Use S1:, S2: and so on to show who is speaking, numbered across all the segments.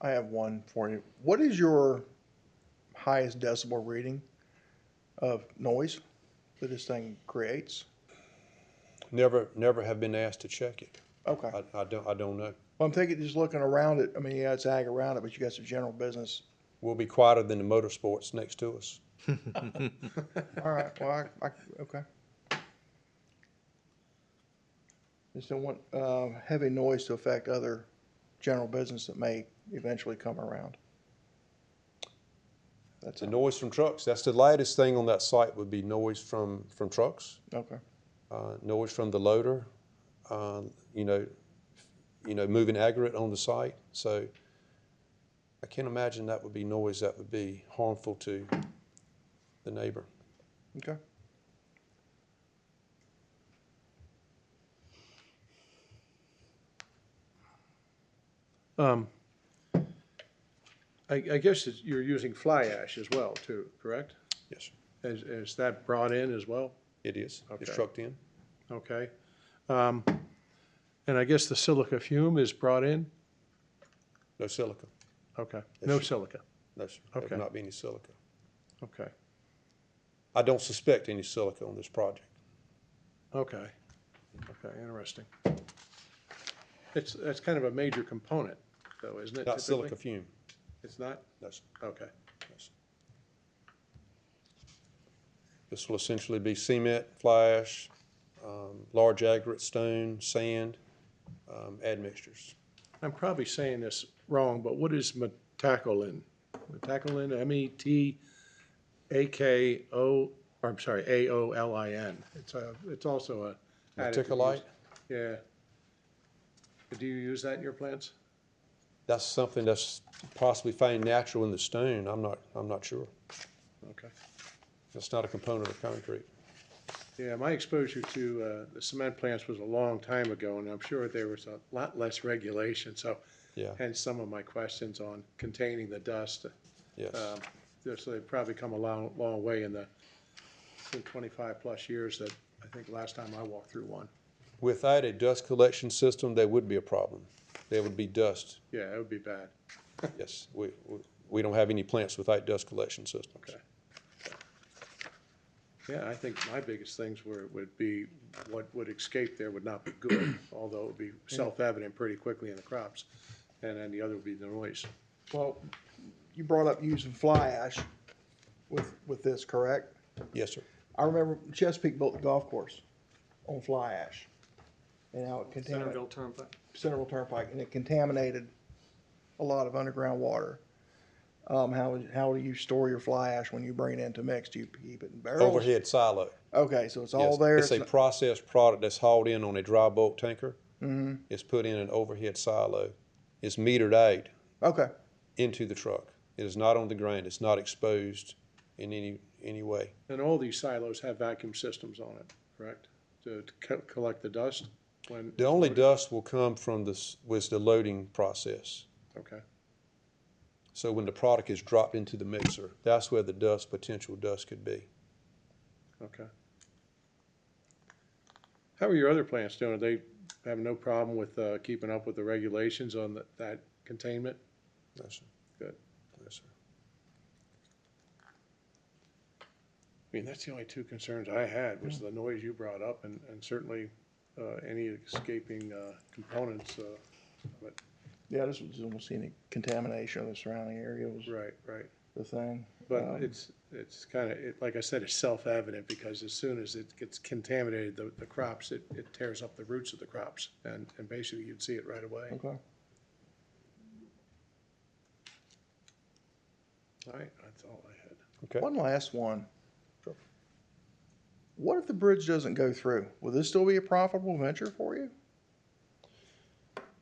S1: I have one for you. What is your highest decibel reading of noise that this thing creates?
S2: Never, never have been asked to check it.
S1: Okay.
S2: I, I don't, I don't know.
S1: Well, I'm thinking just looking around it, I mean, yeah, it's ag around it, but you got some general business.
S2: We'll be quieter than the motorsports next to us.
S1: All right, well, I, I, okay. Just don't want, uh, heavy noise to affect other general business that may eventually come around. That's,
S2: The
S1: all.
S2: noise from trucks, that's the lightest thing on that site would be noise from, from trucks,
S1: okay,
S2: uh, noise from the loader, uh, you know, you know, moving aggregate on the site. So I can't imagine that would be noise that would be harmful to the neighbor.
S1: okay.
S3: I, I guess it's- you're using fly ash as well, too, correct?
S2: Yes,
S3: Is, is that brought in as well?
S2: it is. It's
S3: Okay.
S2: trucked in.
S3: Okay. Um, And I guess the silica fume is brought in?
S2: No silica.
S3: Okay, no silica,
S2: No, sir. There
S3: Okay.
S2: would not be any silica.
S3: okay,
S2: I don't suspect any silica on this project.
S3: okay, okay, interesting. It's, that's kind of a major component, though, isn't it?
S2: Not
S3: typically?
S2: silica fume.
S3: It's not?
S2: No, sir.
S3: Okay,
S2: This will essentially be cement, fly ash, um, large aggregate, stone, sand, um, admixtures.
S3: I'm probably saying this wrong, but what is metacolin? Metacolin, E M-E-T-A-K-O, or I'm sorry, A-O-L-I-N. It's a, it's also a. additive
S2: Meticulite?
S3: used- Yeah. Do you use that in your plants?
S2: That's something that's possibly found natural in the stone. I'm not, I'm not sure.
S3: Okay.
S2: That's not a component of concrete.
S3: Yeah, my exposure to uh, the cement plants was a long time ago, and I'm sure there was a lot less regulation, so
S2: Yeah,
S3: hence some of my questions on containing the dust.
S2: yes.
S3: Um, they're- So they've probably come a long, long way in the twenty-five-plus years that, I think last time I walked through one.
S2: Without a dust collection system, there would be a problem. There would be dust.
S3: Yeah, it would be bad.
S2: Yes, we, we- we don't have any plants without dust collection systems.
S3: Okay. Yeah, I think my biggest things were, would be what would escape there would not be good, although it would be self-evident pretty quickly in the crops. And then the other would be the noise.
S1: Well, you brought up using fly ash with, with this, correct?
S2: Yes, sir.
S1: I remember Chesapeake built the golf course on fly ash. And how it contaminated.
S4: Centerville Turnpike.
S1: Central Turnpike, and it contaminated a lot of underground water. Um, how, how do you store your fly ash when you bring it into mix? Do you keep it in barrels?
S2: Overhead silo.
S1: Okay, so it's all
S2: Yes,
S1: there.
S2: It's a processed product that's hauled in on a dry bulk tanker.
S1: mm-hmm.
S2: It's put in an overhead silo. It's metered out
S1: okay,
S2: into the truck. It is not on the ground. It's not exposed in any, any way.
S3: And all these silos have vacuum systems on it, correct? To to co- collect the dust when,
S2: The only dust will come from this, was the loading process.
S3: okay,
S2: So when the product is dropped into the mixer, that's where the dust, potential dust could be.
S3: okay. How are your other plants doing? Are they having no problem with uh, keeping up with the regulations on that- that containment?
S2: Yes, sir.
S3: Good.
S2: Yes, sir.
S3: I mean, that's the only two concerns I had, was the noise you brought up and, and certainly, uh, any escaping, uh, components, uh, but,
S1: yeah, this was almost any contamination of the surrounding area was
S3: right, right.
S1: the thing.
S3: But
S1: Um,
S3: it's, it's kinda, it, like I said, it's self-evident because as soon as it gets contaminated, the, the crops, it, it tears up the roots of the crops and, and basically you'd see it right away.
S1: okay.
S3: All right, that's all I had.
S2: Okay.
S1: One last one. What if the bridge doesn't go through? Will this still be a profitable venture for you?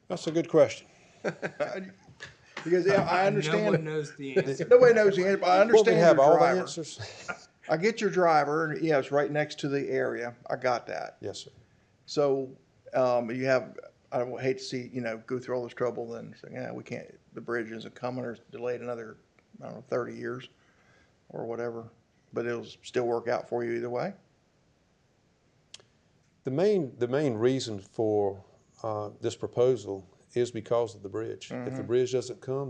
S2: That's a good question.
S1: Because yeah, I understand.
S4: No one knows the answer.
S1: Nobody knows the answer. But I
S2: Well,
S1: understand
S2: we have
S1: your
S2: all the
S1: driver.
S2: answers.
S1: I get your driver, and yeah, it's right next to the area. I got that.
S2: Yes, sir.
S1: So um, you have, I would hate to see, you know, go through all this trouble and say, yeah, we can't, the bridge isn't coming or it's delayed another, I don't know, 30 years or whatever. But it'll still work out for you either way.
S2: The main, the main
S1: Mm-hmm.
S2: reason for uh, this proposal is because of the bridge. If the bridge doesn't come,